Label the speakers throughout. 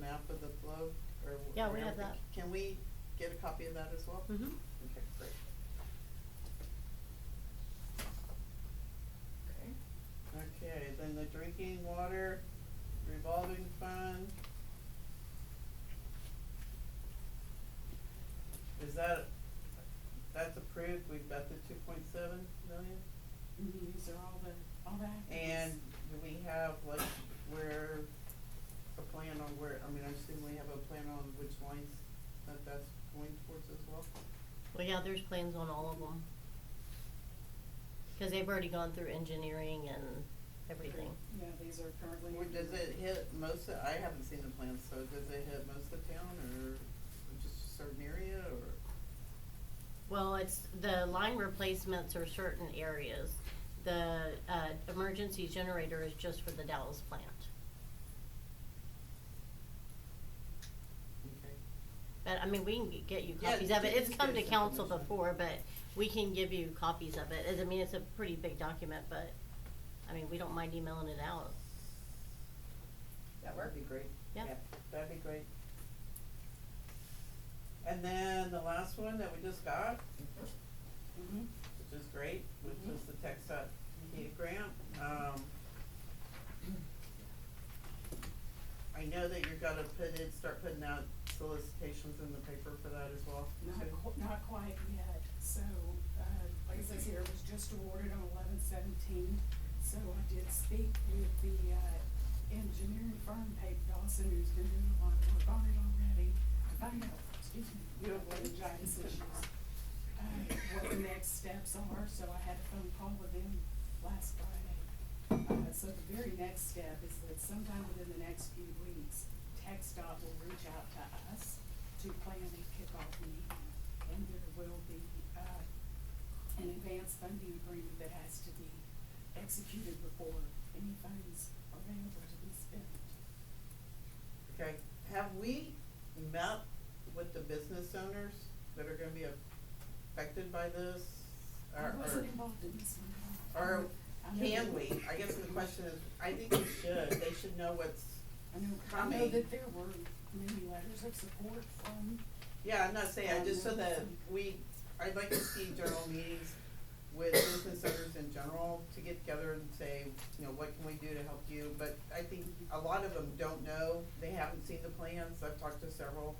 Speaker 1: map of the flow or? wh-
Speaker 2: Yeah, we
Speaker 1: or
Speaker 2: have
Speaker 1: everything?
Speaker 2: that.
Speaker 1: Can we get a copy of that as well?
Speaker 2: Mhm.
Speaker 1: Okay, great.
Speaker 2: Okay.
Speaker 1: Okay, then the drinking water revolving fund. Is that, that's approved, we've got the two point seven million?
Speaker 3: Mhm, These are all the, all the
Speaker 1: Mm-hmm. And
Speaker 3: acronyms.
Speaker 1: do we have like where, a plan on where, I mean, I assume we have a plan on which lines that that's going towards as well?
Speaker 2: Well, yeah, there's plans on all of them. Cause they've already gone through engineering and everything.
Speaker 3: Yeah, these are currently.
Speaker 1: Or does it hit most of, I haven't seen the plans, so does it hit most of town or just a certain area or?
Speaker 2: Well, it's, the line replacements are certain areas. The, uh, emergency generator is just for the Dallas plant.
Speaker 1: Okay.
Speaker 2: But, I mean, we can g- get you
Speaker 1: Yeah,
Speaker 2: copies of it.
Speaker 1: ju-
Speaker 2: It's
Speaker 1: just
Speaker 2: come
Speaker 1: get
Speaker 2: to
Speaker 1: us
Speaker 2: council
Speaker 1: information.
Speaker 2: before, but we can give you copies of it. As- I mean, it's a pretty big document, but, I mean, we don't mind emailing it out.
Speaker 1: That would be great.
Speaker 2: Yeah.
Speaker 1: That'd be great. And then the last one that we just got,
Speaker 3: Mhm.
Speaker 1: which is great, which
Speaker 3: Mhm.
Speaker 1: is the Tech Dot
Speaker 3: Mm-hmm.
Speaker 1: Kid grant, um. I know that you're gonna put in, start putting out solicitations in the paper for that as well.
Speaker 3: Not
Speaker 1: too.
Speaker 3: qu- not quite yet, so, uh, like it says here, it was just awarded on eleven seventeen. So I did speak with the, uh, engineering firm, Pape Dawson, who's been doing a lot of work on it already. I found out, excuse me, you have laryngitis issues, uh, what the next steps are, so I had a phone call with them last Friday. Uh, so the very next step is that sometime within the next few weeks, TechStop will reach out to us to plan a kickoff meeting. And there will be, uh, an advance funding agreement that has to be executed before any funds are available to be spent.
Speaker 1: Okay, have we met with the business owners that are gonna be affected by this? Or-
Speaker 3: I wasn't
Speaker 1: or-
Speaker 3: involved in this one. at all.
Speaker 1: Or
Speaker 3: I know
Speaker 1: can
Speaker 3: that-
Speaker 1: we? I guess the question is, I think we should, they should know what's,
Speaker 3: I know, I know
Speaker 1: coming.
Speaker 3: that there were many letters of support from
Speaker 1: yeah, I'm not saying, I just so that we, I'd like to see general meetings with business owners in general to get together and say, you know, what can we do to help you? But I think a lot of them don't know, they haven't seen the plans, I've talked to several.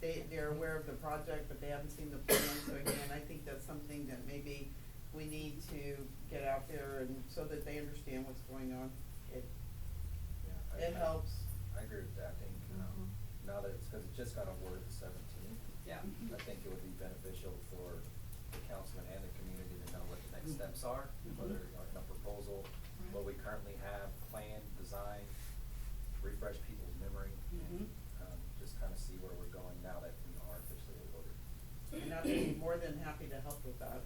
Speaker 1: They, they're aware of the project, but they haven't seen the plans, so again, I think that's something that maybe we need to get out there and so that they understand what's going on. It,
Speaker 4: Yeah, I-
Speaker 1: it
Speaker 4: I-
Speaker 1: helps.
Speaker 4: I agree with that, I think, um,
Speaker 3: Mm-hmm.
Speaker 4: now that it's, cause it just got awarded the seventeenth.
Speaker 5: Yeah.
Speaker 3: um,
Speaker 4: I think it would be beneficial for the councilman and the community to know what the next steps are, whether, like, a proposal, what we currently have planned, designed, refresh people's memory, and, um, just kinda see where we're going now that we are officially awarded.
Speaker 1: And I'd be more than happy to help with that.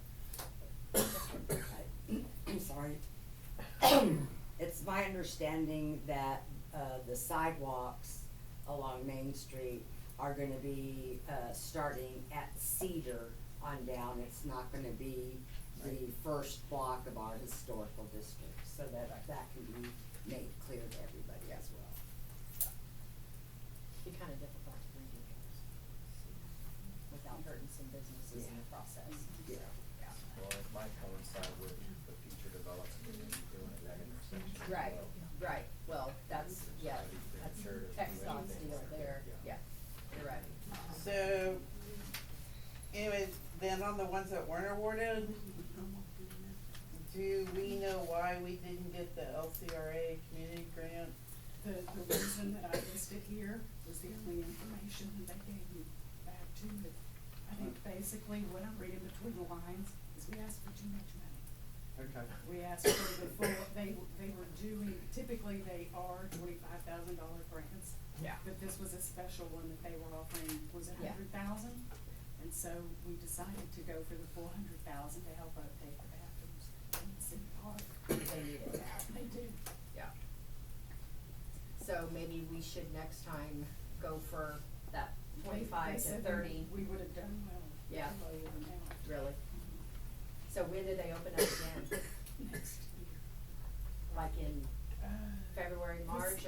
Speaker 6: I'm sorry. It's my understanding that, uh, the sidewalks along Main Street are gonna be, uh, starting at Cedar on down. It's not gonna be the first block of our historical district, so that, that can be made clear to everybody as well.
Speaker 5: Be kind of difficult to redo those without hurting some businesses in the process.
Speaker 6: Yeah.
Speaker 4: Well, it might coincide with the future development that we're doing at that intersection as
Speaker 5: Right,
Speaker 4: well.
Speaker 5: right, well, that's, yeah, that's
Speaker 4: Sure, if you
Speaker 5: text on
Speaker 4: have
Speaker 5: deal
Speaker 4: anything.
Speaker 5: there, yeah,
Speaker 4: Yeah.
Speaker 5: you're right.
Speaker 1: So, anyways, then on the ones that weren't awarded, do we know why we didn't get the LCRA community grant?
Speaker 3: The, the reason that I listed here was the only information that they gave me back to, but I think basically what I'm reading between the lines is we asked for too much money.
Speaker 1: Okay.
Speaker 3: We asked for the full, they, they were doing, typically they are twenty-five thousand dollar grants.
Speaker 5: Yeah.
Speaker 3: But this was a special one that they were offering, was it
Speaker 5: Yeah.
Speaker 3: hundred thousand? And so we decided to go for the full hundred thousand to help out pay for bathrooms in City Park.
Speaker 5: They need it now,
Speaker 3: They do.
Speaker 5: yeah. So maybe we should next time go for that
Speaker 3: They- they
Speaker 5: twenty-five to
Speaker 3: said
Speaker 5: thirty,
Speaker 3: We would have done well. with
Speaker 5: Yeah.
Speaker 3: Lower than that.
Speaker 5: really. So when do they open up again?
Speaker 3: Next year.
Speaker 5: Like in
Speaker 3: Uh,
Speaker 5: February, March,